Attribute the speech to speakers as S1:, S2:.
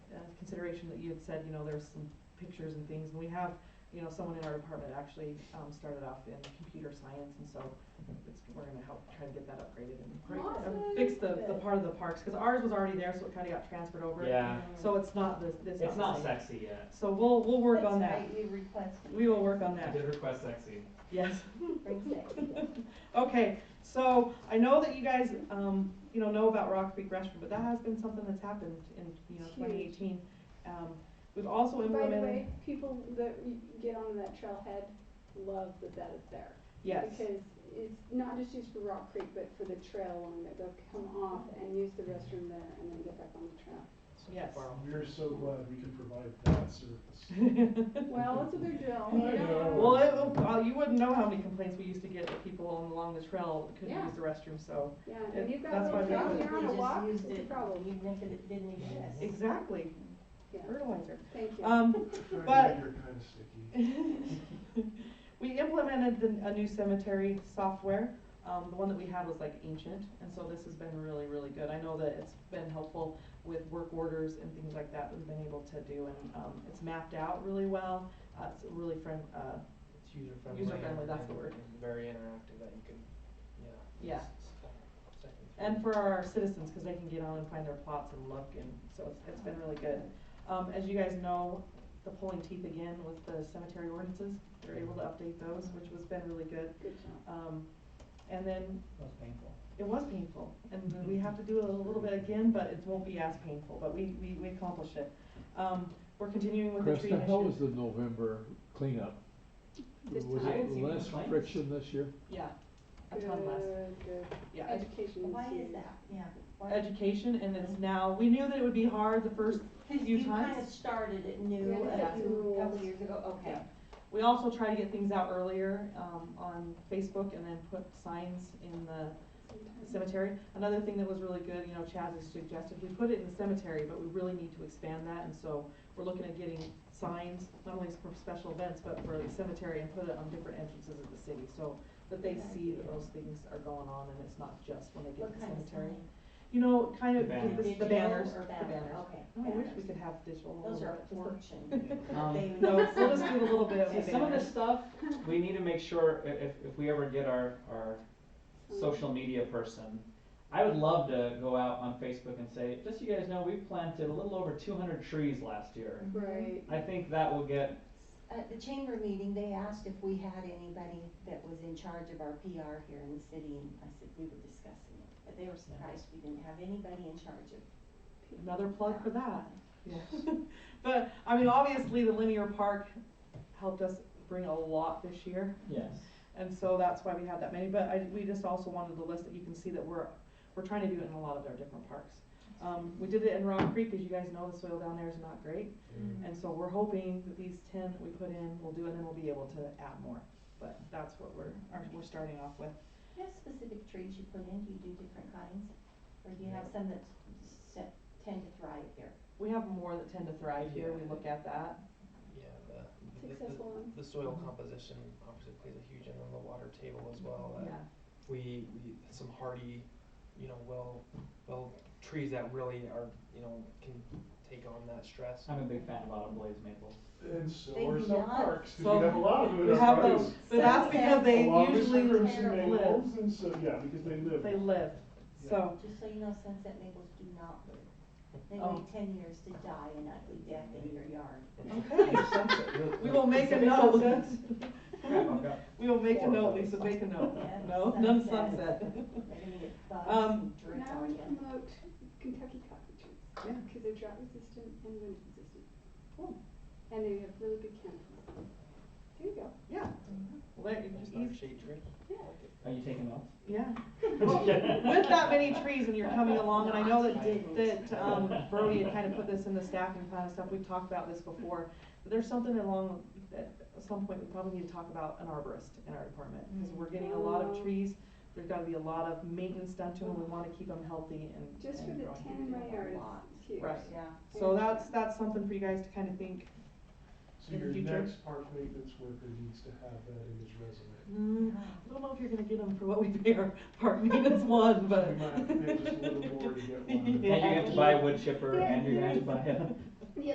S1: uh, consideration that you had said, you know, there's some pictures and things, and we have, you know, someone in our department actually, um, started off in computer science, and so it's, we're gonna help try to get that upgraded and
S2: Awesome.
S1: fix the, the part of the parks, cause ours was already there, so it kinda got transferred over.
S3: Yeah,
S1: So it's not the, it's not
S3: it's
S1: the
S3: not
S1: same.
S3: sexy yet.
S1: So we'll, we'll work on that,
S2: That's right, you requested.
S1: we will work on
S3: I
S1: that,
S3: did request sexy.
S1: yes.
S2: Bring sexy.
S1: Okay, so I know that you guys, um, you know, know about Rock Creek Restroom, but that has been something that's happened in, you know,
S4: It's huge.
S1: twenty eighteen. Um, we've also
S4: By the
S1: implemented,
S4: way, people that y- get on that trailhead love that that is there.
S1: yes,
S4: Because it's not just used for Rock Creek, but for the trail along there. They'll come off and use the restroom there and then get back on the trail.
S1: yes.
S5: We're so glad we can provide that service.
S4: Well, it's a big deal.
S5: I know.
S1: Well, it, uh, you wouldn't know how many complaints we used to get that people on- along the trail couldn't
S4: Yeah.
S1: use the restroom, so.
S4: Yeah,
S1: It-
S4: and you've got
S1: that's
S4: a
S1: why
S4: little
S1: they
S4: trail
S1: put-
S4: here on a
S2: They
S4: walk,
S2: just
S4: it's
S2: used
S4: a
S2: it.
S4: problem.
S2: Even if it didn't exist.
S1: Exactly,
S4: Yeah,
S1: fertilizer.
S4: thank you.
S1: Um, But-
S5: You're kind of sticky.
S1: We implemented the, a new cemetery software. Um, the one that we had was like ancient, and so this has been really, really good. I know that it's been helpful with work orders and things like that that we've been able to do, and, um, it's mapped out really well. Uh, it's really friend, uh,
S3: It's user friendly.
S1: User-friendly, that's the word.
S3: Very interactive that you can, yeah.
S1: Yeah.
S3: just stop, second through.
S1: and for our citizens, cause they can get on and find their plots and look, and so it's, it's been really good. Um, as you guys know, the pulling teeth again with the cemetery ordinances, they're able to update those, which has been really good.
S4: Good job.
S1: Um, and then
S3: That was painful.
S1: It was painful, and
S6: Mm-hmm.
S1: we have to do it a little bit again, but it won't be as painful, but we, we, we accomplished it. Um, we're continuing with the tree
S6: Krista, how was
S1: initiative.
S6: the November cleanup?
S4: This
S6: Was
S3: time- I didn't
S6: it
S3: see
S6: less
S3: complaints.
S6: friction this year?
S1: Yeah, a ton less,
S4: Good, good.
S1: yeah. ed-
S4: Education.
S2: Why is
S4: huge.
S2: that? Yeah. Why-
S1: Education, and it's now, we knew that it would be hard the first
S2: Cause
S1: few
S2: you kind of
S1: times.
S2: started it new
S4: Yeah,
S2: a
S1: that's
S2: few,
S4: rules.
S2: couple of years ago, okay.
S1: Yeah. We also try to get things out earlier, um, on Facebook and then put signs in the cemetery. Another thing that was really good, you know, Chaz has suggested, we put it in the cemetery, but we really need to expand that, and so we're looking at getting signs, not only for special events, but for the cemetery and put it on different entrances of the city, so that they
S2: Good
S1: see that
S2: idea.
S1: those things are going on and it's not just when they get
S2: What
S1: to the
S2: kind of
S1: cemetery.
S2: sign?
S1: You know, kind of,
S3: The banners.
S1: the- the
S2: Digital
S1: banners,
S2: or
S1: the
S2: banner?
S1: banners.
S2: Okay.
S1: Oh, I wish we
S2: banners.
S1: could have digital.
S2: Those are
S1: but-
S2: fortune.
S3: Um,
S2: They-
S1: No, we'll just do a little bit of
S3: See,
S1: the
S3: some of
S1: banners.
S3: this stuff, we need to make sure, i- if, if we ever get our, our social media person, I would love to go out on Facebook and say, just so you guys know, we planted a little over two hundred trees last year.
S4: Right.
S3: I think that will get,
S2: At Uh, the chamber meeting, they asked if we had anybody that was in charge of our PR here in the city, and I said, we were discussing it. But they were surprised we didn't have anybody in charge of.
S1: Another plug for that. But, I mean, obviously, the linear park helped us bring a lot this year,
S3: yes.
S1: and so that's why we had that many, but I, we just also wanted the list that you can see that we're, we're trying to do it in a lot of our different parks. Um, we did it in Rock Creek, as you guys know, the soil down there is not great, and so we're hoping that these ten that we put in will do, it, and then we'll be able to add more, but that's what we're, our- we're starting off with.
S2: Do you have specific trees you put in? Do you do different kinds? Or do you have some that set, tend to thrive here?
S1: We have more that tend to thrive here, we look at that,
S7: Yeah, the, the,
S4: Successful one.
S7: the- the soil
S1: Mhm.
S7: composition obviously plays a huge, and then the water table as well. uh,
S1: Mm-hmm. yeah.
S7: We, we, some hardy, you know, well, well, trees that really are, you know, can take on that stress.
S3: I'm a big fan of autumn blaze maples.
S5: And so
S2: Thank
S5: are
S2: you,
S5: some
S2: John.
S5: parks, 'cause
S1: So
S5: we have a lot of them
S1: We
S5: in
S1: have
S5: our
S1: those,
S5: parks.
S1: but that's because they
S5: Along with
S1: usually
S5: crimson
S2: live.
S5: maples, and so, yeah, because they live.
S1: They live, so,
S2: Just so you know, sunset maples do not live. They
S1: Oh.
S2: wait ten years to die an ugly death in your yard.
S1: okay, we will make a note.
S3: Crap, I've got
S1: We will make a
S3: four of
S1: note,
S3: those.
S1: Lisa, make a note,
S2: Yes,
S1: no, none sunset.
S2: sunset. They're gonna get bugs
S1: Um,
S2: and dirt
S4: Now
S2: on
S4: we
S2: them.
S4: promote Kentucky coffee trees.
S1: Yeah.
S4: Because they're drought resistant and wind resistant.
S1: Cool.
S4: And they have really big canopy. There you go.
S1: Yeah, well, there,
S7: It's
S1: you-
S7: not a shade tree.
S4: Yeah.
S3: Are you taking notes?
S1: yeah,
S3: Just kidding.
S1: with that many trees and you're coming along, and I know that,
S2: I didn't.
S1: that, um, Brody had kind of put this in the staffing plan and stuff, we've talked about this before. But there's something along, at some point, we probably need to talk about an arborist in our department, because we're getting a lot of
S4: Mhm.
S1: trees. There's gotta be a lot of maintenance done to them, we wanna keep them healthy and.
S4: Just for
S1: and
S4: the
S1: growing.
S4: tan in my yard,
S2: Lot.
S4: it's huge.
S1: Right.
S2: Yeah.
S1: So that's, that's something for you guys to kind of think,
S5: So
S1: in the
S5: your
S1: future.
S5: next park maintenance worker needs to have that in his resume.
S1: mm,
S4: Uh-huh.
S1: I don't know if you're gonna get them for what we pay our park maintenance one, but.
S5: We might have to pay just a little more to get one.
S3: And you
S1: Yeah.
S3: have to buy a wood chipper and you're gonna have to buy a